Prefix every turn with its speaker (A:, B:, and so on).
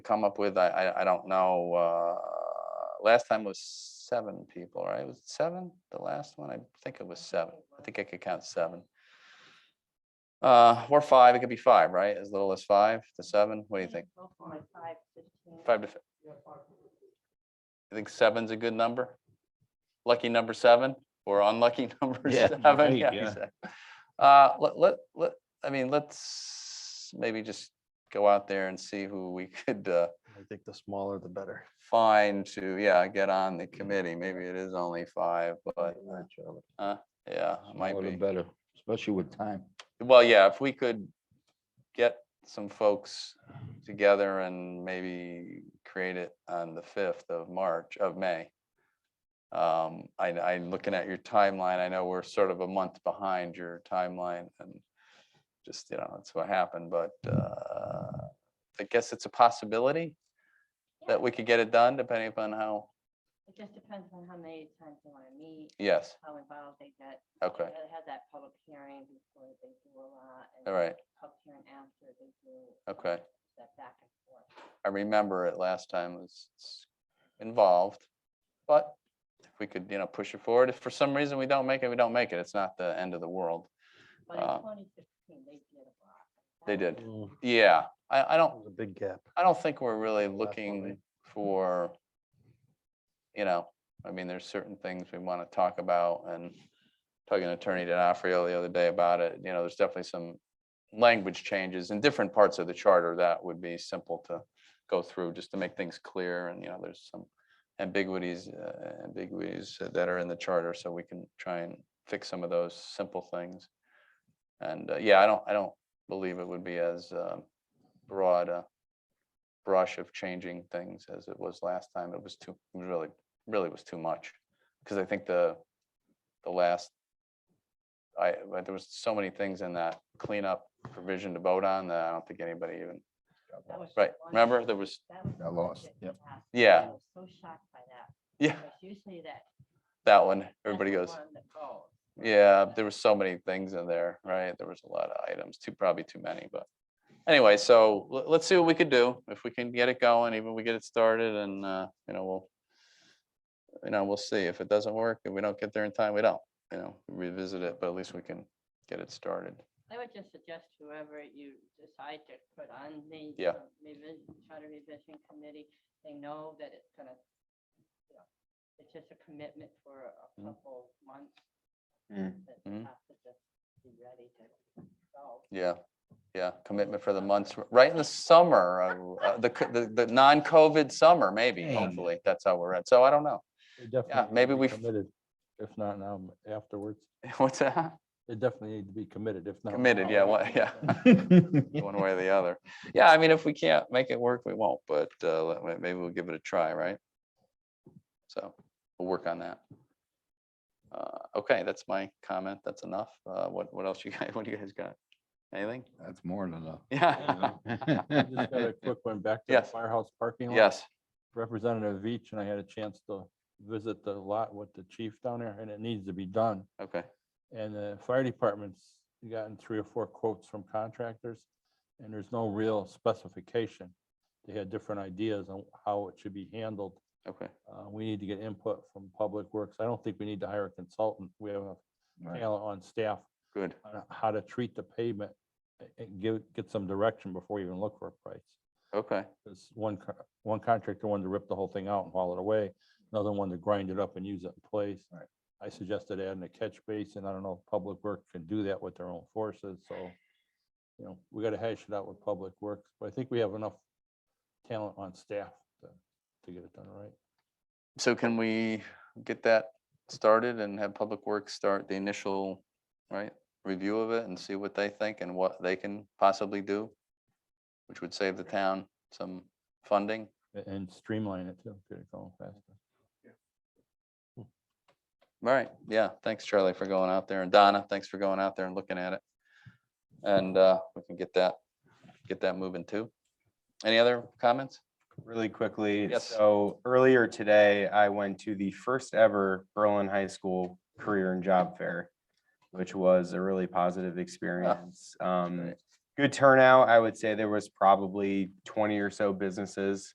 A: come up with, I, I, I don't know, uh, last time was seven people, right? Was it seven? The last one? I think it was seven. I think I could count seven. Uh, or five, it could be five, right? As little as five to seven? What do you think?
B: Go for like five, fifteen.
A: Five to. fi- You think seven's a good number? Lucky number seven or unlucky number
C: Yeah,
A: seven?
C: right,
A: Yeah,
C: yeah.
A: exactly. Uh, let, let, let, I mean, let's maybe just go out there and see who we could, uh,
C: I think the smaller the better.
A: find to, yeah, get on the committee. Maybe it is only five, but yeah, it might
C: Smaller the
A: be.
C: Better, especially with time.
A: Well, yeah, if we could get some folks together and maybe create it on the fifth of March, of May. Um, I, I, looking at your timeline, I know we're sort of a month behind your timeline and just, you know, that's what happened, but, uh, I guess it's a possibility that we could get it done depending upon how,
B: It just depends on how many times they want to meet,
A: yes,
B: how involved they get.
A: okay,
B: They Have that public hearing before they do a lot. and
A: all right,
B: Public hearing after they do.
A: okay.
B: That back and forth.
A: I remember it last time was s- involved, but if we could, you know, push it forward, if for some reason we don't make it, we don't make it. It's not the end of the world.
B: But in
A: Uh,
B: twenty fifteen, they did a lot.
A: They
B: That
A: did.
B: was-
C: There's
A: Yeah, I, I don't,
C: a big gap.
A: I don't think we're really
C: Last one,
A: looking
C: right?
A: for, you know, I mean, there's certain things we want to talk about and talking to Attorney DiNofrio the other day about it, you know, there's definitely some language changes in different parts of the charter that would be simple to go through just to make things clear and, you know, there's some ambiguities, uh, ambiguities that are in the charter, so we can try and fix some of those simple things. And, uh, yeah, I don't, I don't believe it would be as um, broad uh, a brush of changing things as it was last time. It was too, it was really, really was too much. Because I think the, the last, I, but there was so many things in that cleanup provision to vote on that I don't think anybody even,
B: that was just
A: right,
B: one
A: remember,
B: thing.
A: there was,
B: That was
C: Got
B: one
C: lost,
B: that
C: yep.
B: passed, and
A: Yeah.
B: I was So shocked by that.
A: yeah,
B: because Usually that.
A: that one,
B: that's
A: everybody
B: the
A: goes,
B: one that goes.
A: yeah, there was so many things in there, right? There was a lot of items, too, probably too many, but anyway, so let, let's see what we could do. If we can get it going, even we get it started and, uh, you know, we'll, you know, we'll see. If it doesn't work, if we don't get there in time, we don't, you know, revisit it, but at least we can get it started.
B: I would just suggest whoever you decide to put on the.
A: Yeah.
B: uh, revis- Charter revision committee, they know that it's gonna, you know, it's just a commitment for a
A: Mhm.
B: couple months.
A: Mm.
B: That
A: Mhm.
B: you have to just be ready to go.
A: Yeah, yeah, commitment for the months, r- right in the summer, of, uh, the, co- the, the non-COVID summer, maybe,
C: Yeah.
A: hopefully, that's how we're at. So I don't know. definitely maybe need to be we f-
C: If not now, afterwards,
A: What's that?
C: they definitely need to be committed, if not.
A: Committed, yeah, what, yeah. one way or the other. Yeah, I mean, if we can't make it work, we won't, but uh, let- let- maybe we'll give it a try, right? So we'll work on that. Uh, Okay, that's my comment. That's enough. Uh, What, what else you guys, what do you guys got? Anything?
D: That's more than enough.
A: Yeah,
C: Just got a quick one back to the
A: Yes.
C: firehouse parking lot.
A: yes,
C: Representative of each, and I had a chance to visit the lot with the chief down there, and it needs to be done.
A: okay,
C: And the fire department's gotten three or four quotes from contractors, and there's no real specification. They had different ideas on how it should be handled.
A: okay,
C: Uh, We need to get input from Public Works. I don't think we need to hire a consultant. We have a
D: Right.
C: talent on staff
A: good.
C: on how to treat the pavement a- and give, get some direction before you even look for a price.
A: Okay,
C: Because one, co- one contractor wanted to rip the whole thing out and haul it away, another one to grind it up and use it in place.
D: Right.
C: I suggested adding a catch basin. I don't know if Public Works can do that with their own forces, so, you know, we gotta hash it out with Public Works, but I think we have enough talent on staff to, to get it done right.
A: so can we get that started and have Public Works start the initial, right, review of it and see what they think and what they can possibly do? Which would save the town some funding.
C: a- And streamline it too, get it going faster.
A: All right, yeah, thanks Charlie for going out there and Donna, thanks for going out there and looking at it. And uh, we can get that, get that moving too. Any other comments?
E: really quickly.
A: Yes.
E: So earlier today, I went to the first ever Berlin High School Career and Job Fair, which was a really positive experience. Um,
A: Ah, great.
E: good turnout. I would say there was probably twenty or so businesses